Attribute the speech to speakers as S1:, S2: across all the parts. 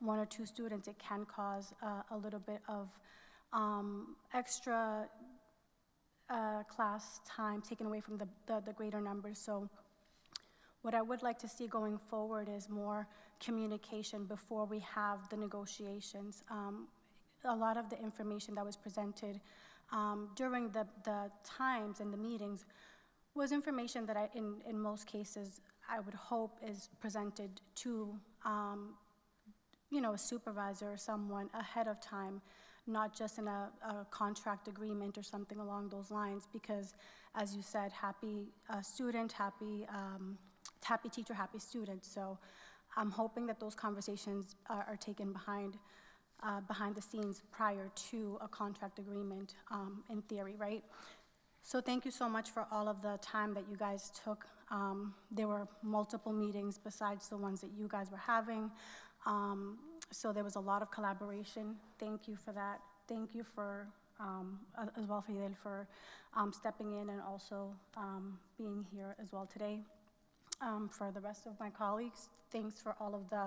S1: one or two students, it can cause uh, a little bit of um, extra uh, class time taken away from the- the the greater numbers. So what I would like to see going forward is more communication before we have the negotiations. Um, A lot of the information that was presented um, during the, the times and the meetings was information that I, in, in most cases, I would hope is presented to, um, you know, a supervisor or someone ahead of time, not just in a, a contract agreement or something along those lines, because as you said, happy uh, student, happy, um, happy teacher, happy student. So I'm hoping that those conversations are, are taken behind, uh, behind the scenes prior to a contract agreement, um, in theory, right? So thank you so much for all of the time that you guys took. Um, There were multiple meetings besides the ones that you guys were having. Um, So there was a lot of collaboration. Thank you for that. Thank you for, um, a- as well, Fidel, for um, stepping in and also um, being here as well today. Um, For the rest of my colleagues, thanks for all of the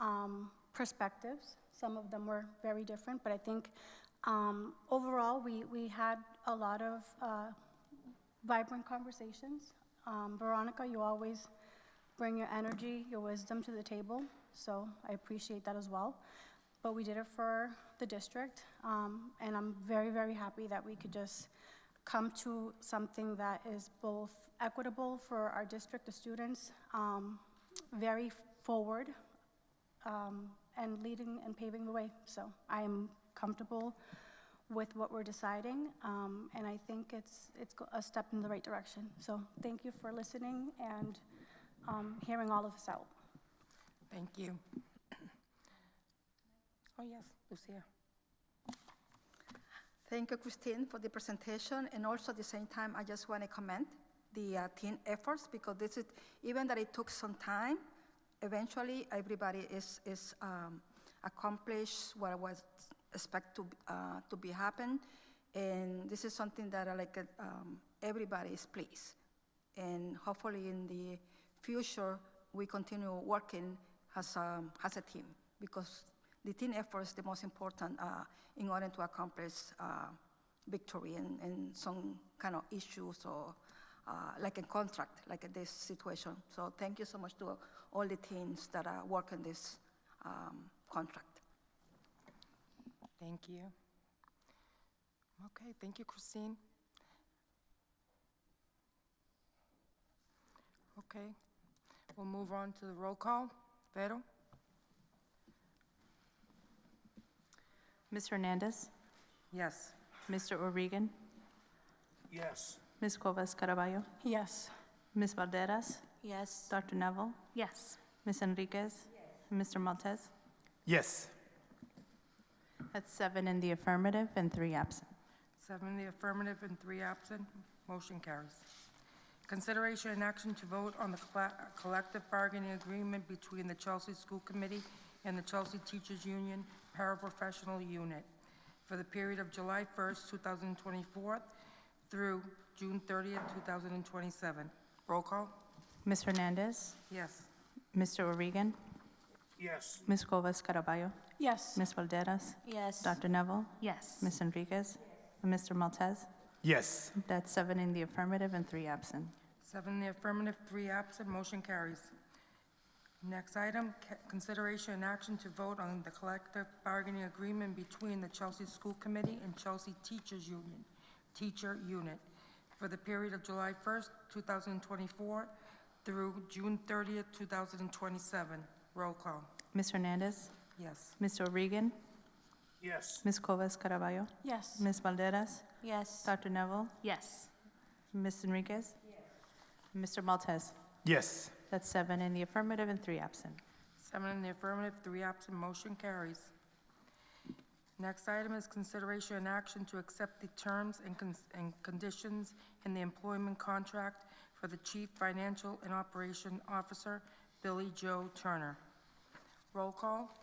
S1: um, perspectives. Some of them were very different, but I think um, overall, we, we had a lot of uh, vibrant conversations. Um, Veronica, you always bring your energy, your wisdom to the table, so I appreciate that as well. But we did it for the district, um, and I'm very, very happy that we could just come to something that is both equitable for our district, the students, um, very forward, um, and leading and paving the way. So I am comfortable with what we're deciding, um, and I think it's, it's go- a step in the right direction. So thank you for listening and um, hearing all of us out.
S2: Thank you. Oh, yes, Lucia.
S3: Thank you, Christine, for the presentation, and also at the same time, I just want to commend the uh, team efforts, because this is, even that it took some time, eventually, everybody is, is um, accomplished what was expect to, uh, to be happen, and this is something that I like, uh, um, everybody is pleased. And hopefully, in the future, we continue working as, um, as a team, because the team effort is the most important uh, in order to accomplish uh, victory in, in some kind of issues or uh, like a contract, like in this situation. So thank you so much to all the teams that are working this um, contract.
S2: Thank you. Okay, thank you, Christine. Okay, we'll move on to the roll call. Vero?
S4: Ms. Hernandez,
S2: Yes.
S4: Mr. O'Regan,
S5: Yes.
S4: Ms. Cuevas Caraballo,
S1: Yes.
S4: Ms. Valderas,
S2: Yes.
S4: Dr. Neville,
S1: Yes.
S4: Ms. Enriquez, and Mr. Maltese.
S5: Yes.
S4: That's seven in the affirmative and three absent.
S2: Seven in the affirmative and three absent. Motion carries. Consideration and action to vote on the colla- collective bargaining agreement between the Chelsea School Committee and the Chelsea Teachers Union Paraprofessional Unit for the period of July 1st, 2024 through June 30th, 2027. Roll call?
S4: Ms. Hernandez,
S2: Yes.
S4: Mr. O'Regan,
S5: Yes.
S4: Ms. Cuevas Caraballo,
S1: Yes.
S4: Ms. Valderas,
S6: Yes.
S4: Dr. Neville,
S6: Yes.
S4: Ms. Enriquez, and Mr. Maltese.
S5: Yes.
S4: That's seven in the affirmative and three absent.
S2: Seven in the affirmative, three absent, motion carries. Next item, ca- consideration and action to vote on the collective bargaining agreement between the Chelsea School Committee and Chelsea Teachers Union, Teacher Unit, for the period of July 1st, 2024 through June 30th, 2027. Roll call.
S4: Ms. Hernandez,
S2: Yes.
S4: Mr. O'Regan,
S5: Yes.
S4: Ms. Cuevas Caraballo,
S1: Yes.
S4: Ms. Valderas,
S6: Yes.
S4: Dr. Neville,
S6: Yes.
S4: Ms. Enriquez, Mr. Maltese.
S5: Yes.
S4: That's seven in the affirmative and three absent.
S2: Seven in the affirmative, three absent, motion carries. Next item is consideration and action to accept the terms and cons- and conditions in the employment contract for the Chief Financial and Operation Officer, Billy Joe Turner. Roll call?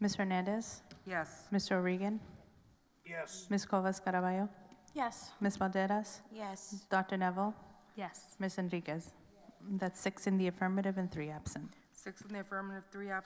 S4: Ms. Hernandez,
S2: Yes.
S4: Mr. O'Regan,
S5: Yes.
S4: Ms. Covas Caraballo,
S1: Yes.
S4: Ms. Valderas,
S6: Yes.
S4: Dr. Neville,
S6: Yes.
S4: Ms. Enriquez. That's six in the affirmative and three absent.
S2: Six in the affirmative, three absent,